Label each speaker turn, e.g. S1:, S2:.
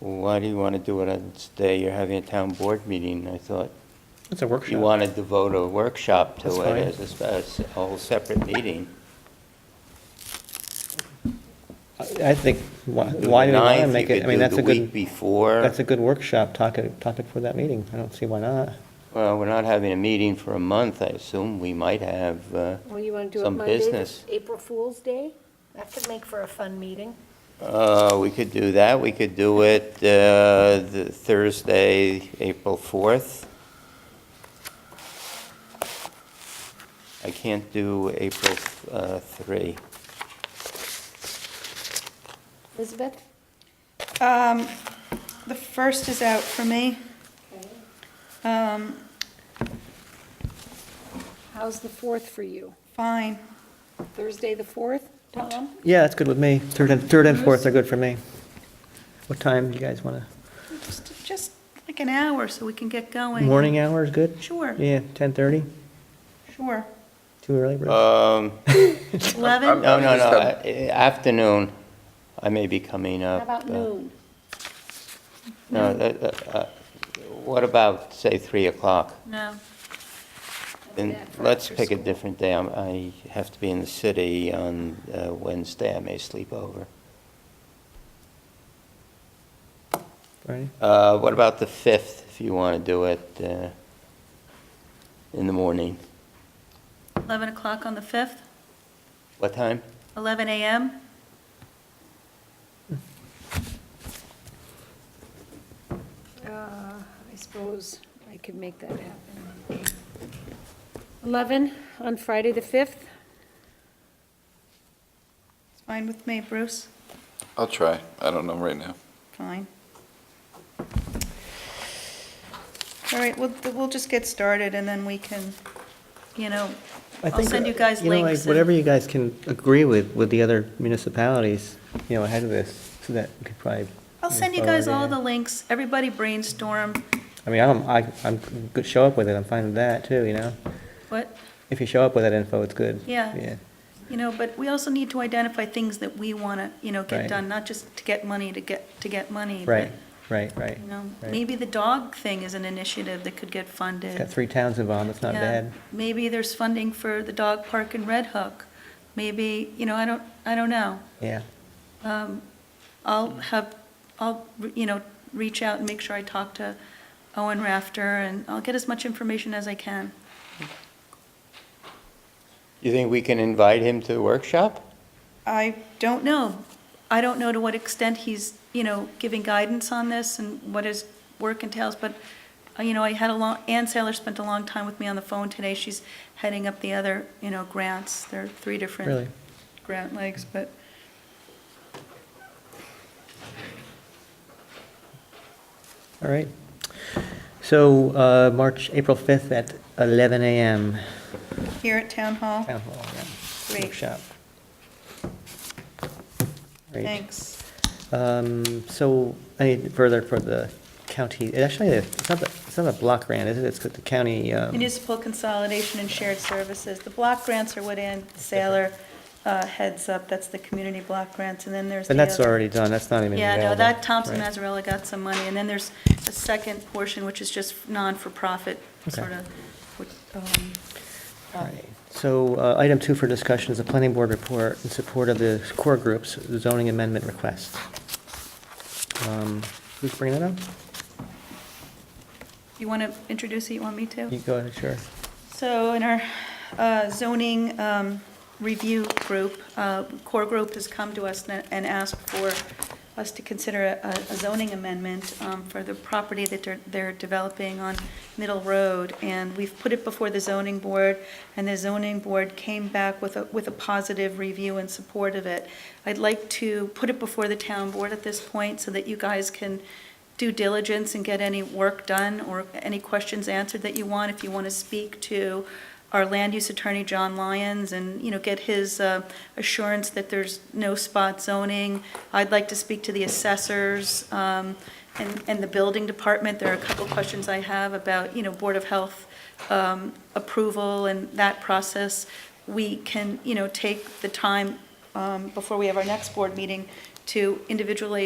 S1: why do you want to do it on this day? You're having a town board meeting. I thought
S2: It's a workshop.
S1: you want to devote a workshop to
S2: That's
S1: it
S2: fine.
S1: as a spe- as a whole separate meeting.
S2: I I think, why
S1: Do
S2: why do we
S1: the
S2: want to
S1: 9th,
S2: make
S1: you
S2: it, I
S1: could
S2: mean,
S1: do
S2: that's a
S1: The week
S2: good,
S1: before.
S2: that's a good workshop topic, topic for that meeting. I don't see why not.
S1: Well, we're not having a meeting for a month, I assume. We might have, uh,
S3: Well, you want to do it
S1: Some
S3: Monday, the-
S1: business.
S3: April Fool's Day? That could make for a fun meeting.
S1: uh, we could do that. We could do it uh, the Thursday, April 4th. I can't do April uh, 3.
S3: Elizabeth?
S4: Um, the first is out for me. Um,
S3: How's the 4th for you?
S4: fine.
S3: Thursday, the 4th, Tom?
S2: Yeah, that's good with me. Third and, third and fourth are good for me. What time do you guys want
S4: Just, just like an hour so we can get
S2: to,
S4: going.
S2: morning hours, good?
S4: Sure,
S2: Yeah, 10:30,
S4: sure.
S2: too early, Bruce?
S1: Um,
S4: Eleven?
S1: No, no, no, I- eh, afternoon. I may be coming
S3: How
S1: up.
S3: about
S1: uh,
S3: noon?
S1: No, that- that, uh, what about, say, 3 o'clock?
S4: No.
S1: Then
S3: that for
S1: let's
S3: after
S1: pick a
S3: school.
S1: different day. I'm- I have to be in the city on uh, Wednesday. I may sleep over.
S2: Friday?
S1: Uh, What about the 5th, if you want to do it uh, in the morning?
S4: Eleven o'clock on the fifth,
S1: What time?
S4: eleven AM?
S3: Uh, I suppose I could make that happen. 11 on Friday, the 5th?
S4: It's fine with me, Bruce.
S5: I'll try. I don't know right now.
S4: Fine. All right, we'll, we'll just get started and then we can, you know,
S2: I
S4: I'll
S2: think,
S4: send you
S2: uh,
S4: guys
S2: know, like,
S4: links and-
S2: Whatever you guys can agree with, with the other municipalities, you know, ahead of this, so that we could probably.
S4: I'll
S2: move
S4: send you guys all
S2: forward,
S4: the
S2: yeah.
S4: links. Everybody brainstorm
S2: I mean, I'm, I- I'm, good. show up with it, I'm fine with that, too, you know?
S4: what,
S2: If you show up with that info, it's good.
S4: Yeah.
S2: Yeah.
S4: you know, but we also need to identify things that we want to, you know, get
S2: Right.
S4: done, not just to get money to get, to get money. but,
S2: Right, right, right.
S4: You know,
S2: right.
S4: maybe the dog thing is an initiative that could get
S2: It's got
S4: funded.
S2: three towns involved, it's not
S4: Yeah.
S2: bad.
S4: Maybe there's funding for the dog park in Red Hook. Maybe, you know, I don't, I don't know.
S2: Yeah,
S4: Um, I'll have, I'll, you know, reach out and make sure I talk to Owen Rafter, and I'll get as much information as I can.
S1: You think we can invite him to the workshop?
S4: I don't know. I don't know to what extent he's, you know, giving guidance on this and what his work entails, but, uh, you know, I had a long, Ann Saylor spent a long time with me on the phone today. She's heading up the other, you know, grants. There are three
S2: really.
S4: different grant legs, but
S2: All right. So, uh, March, April 5th at 11 a.m.
S4: here at Town Hall,
S2: Town Hall, yeah.
S4: Great.
S2: Workshop. Great.
S4: thanks.
S2: Um, so, any further for the county, it actually, it's not, the- it's not a block grant, is it? It's the county, um,
S4: Municipal consolidation and shared services. The block grants are what Ann Saylor uh, heads up. That's the community block grants, and then there's the
S2: and that's
S4: other-
S2: already done, that's not even
S4: Yeah,
S2: available.
S4: no, that Thompson
S2: Right.
S4: Mazzarella got some money, and then there's a second portion, which is just non-for-profit,
S2: Okay.
S4: sort of. which, um,
S2: All right. So uh, item two for discussion is the planning board report in support of the core group's zoning amendment request. Um, Who's bringing that up?
S4: You want to introduce it, you want me to?
S2: You go ahead, sure.
S4: So in our uh, zoning um, review group, uh, core group has come to us na- and asked for us to consider a a zoning amendment um, for the property that they're- they're developing on Middle Road. And we've put it before the zoning board, and the zoning board came back with a, with a positive review in support of it. I'd like to put it before the town board at this point so that you guys can due diligence and get any work done or any questions answered that you want. If you want to speak to our land use attorney, John Lyons, and, you know, get his uh, assurance that there's no spot zoning. I'd like to speak to the assessors um, and, and the building department. There are a couple questions I have about, you know, Board of Health um, approval and that process. We can, you know, take the time um, before we have our next board meeting to individually